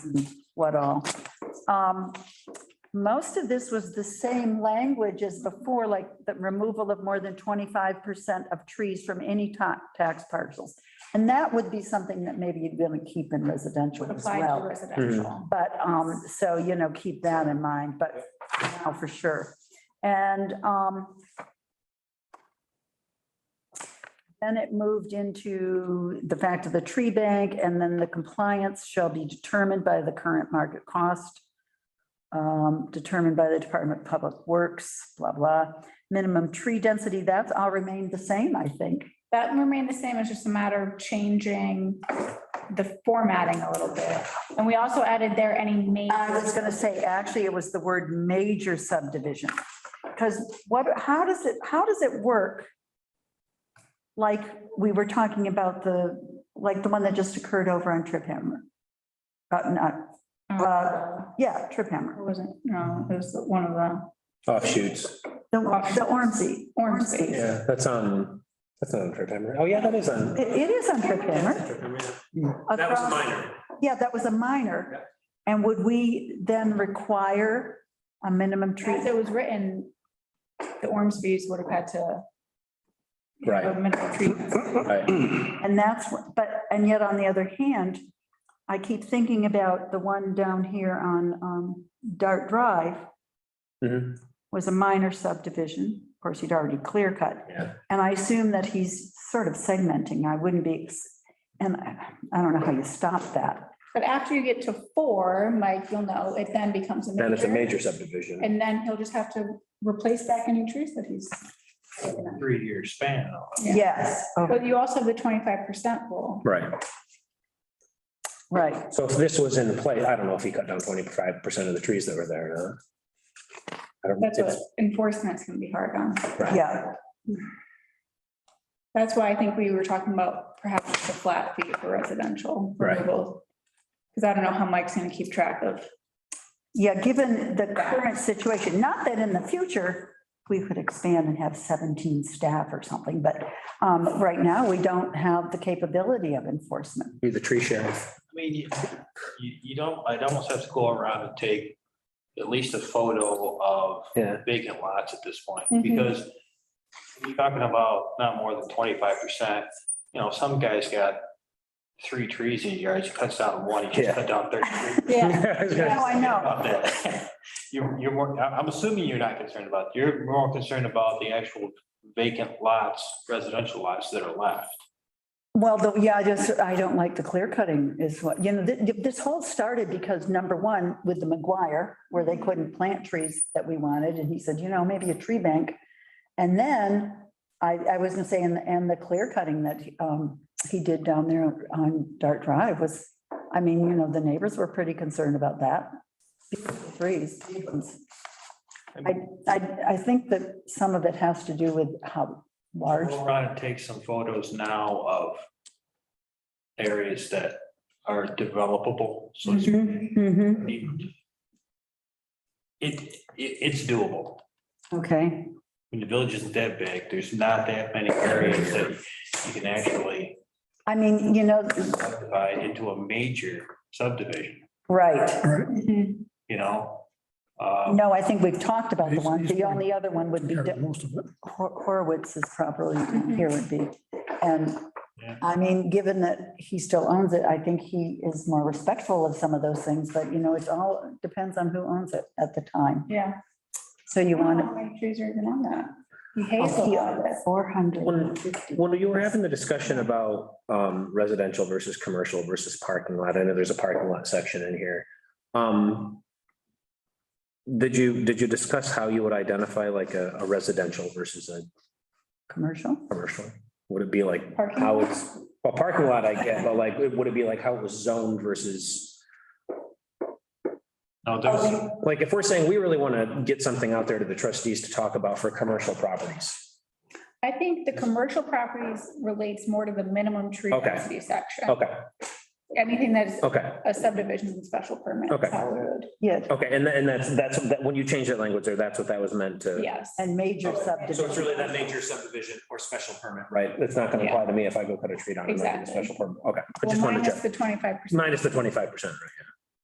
what all. Um, Most of this was the same language as before, like the removal of more than 25% of trees from any ta- tax parcels. And that would be something that maybe you'd want to keep in residential as apply to well. residential. But, um, so, you know, keep that in mind, but now for sure. And, um, then it moved into the fact of the tree bank and then the compliance shall be determined by the current market cost, um, determined by the Department of Public Works, blah, blah. Minimum tree density, that's all remained the same, I think. That remained the same, it's just a matter of changing the formatting a little bit. And we also added there any I was major, gonna say, actually, it was the word major subdivision. Because what, how does it, how does it work? Like, we were talking about the, like the one that just occurred over on Trip Hammer. Uh, not, uh, yeah, Trip Hammer, Or was Oh, it? no, it was one of the, Offshoots. the, the Ormsey. Ormsey. Yeah, that's on, that's not on trip hammer. Oh, yeah, that is on. It, it is on Trip Hammer. That was Across- minor. Yeah, that was a minor. And would we then require a minimum tree? as it was written, the Ormsby's would have had to. Right. have a minimum tree. Right. Mm-hmm. And that's, what- but, and yet on the other hand, I keep thinking about the one down here on um, Dart Drive Mhm. was a minor subdivision. Of course, he'd already clear cut. Yeah. And I assume that he's sort of segmenting. I wouldn't be, and I I don't know how you stop that. But after you get to four, Mike, you'll know, it then becomes a Then it's a major. major subdivision. And then he'll just have to replace back any trees that he's. Three-year span. Yeah. Yes, oh, But you also have the twenty-five percent rule. Right. right. So if this was in play, I don't know if he cut down twenty-five percent of the trees that were there or not. I don't, That's what it's- enforcement's gonna be hard on. Yeah, That's why I think we were talking about perhaps the flat fee for residential. Right. removal. Cause I don't know how Mike's gonna keep track of. yeah, given the current situation, not that in the future we could expand and have 17 staff or something, but um, right now we don't have the capability of enforcement. be the tree sheriff. I mean, you, you you don't, I'd almost have to go around and take at least a photo of Yeah. vacant lots at this point, Mm-hmm. Mhm. because you're talking about not more than twenty-five percent, you know, some guy's got three trees in his yard, he cuts down one, he Yeah. just cut down thirty-three. I was gonna- Oh, I know. about that. You're, you're more, I- I'm assuming you're not concerned about, you're more concerned about the actual vacant lots, residential lots that are left. Well, the, yeah, I just, I don't like the clear cutting is what, you know, th- th- this whole started because number one, with the McGuire, where they couldn't plant trees that we wanted, and he said, you know, maybe a tree bank. And then I, I was gonna say, and, and the clear cutting that, um, he did down there on Dart Drive was, I mean, you know, the neighbors were pretty concerned about that. Beautiful Trees. I, I, I think that some of it has to do with how large. We'll try and take some photos now of areas that are developable, so to Mm-hmm, Mhm, mhm. speak. It, it, it's doable. Okay, When the village isn't that big, there's not that many areas that you can actually I mean, you know, subdivide into a major subdivision, right. you know? Um, No, I think we've talked about the He's- one. he's The fine. only other one would be Covered Hor- most of it. Horowitz is probably, here would be. And Yeah. I mean, given that he still owns it, I think he is more respectful of some of those things, but you know, it's all depends on who owns it at the time. Yeah. So you want How many trees are even on that? He hates a lot of to. this. Four hundred. When, when you were having the discussion about um, residential versus commercial versus parking lot, I know there's a parking lot section in here. Um, Did you, did you discuss how you would identify like a a residential versus a Commercial? commercial? Would it be like Parking Uh, how lot? it's, well, parking lot I get, but like, would it be like how it was zoned versus? No, there's, Like if we're saying we really want to get something out there to the trustees to talk about for commercial properties. I think the commercial properties relates more to the minimum tree Okay. density section. Okay, Anything that is okay, a subdivision and special permit. Okay. how we Yeah, okay. And tha- and that's, that's, that when you change that language there, that's what that was meant to. would- Yes. and major Okay, So it's subdivision. really that major subdivision or special permit, right? It's not gonna apply to me if I go cut a tree down and make it a Exactly. special permit. Okay, I Well, just wanted to minus check. the twenty-five percent. Minus the twenty-five percent, right?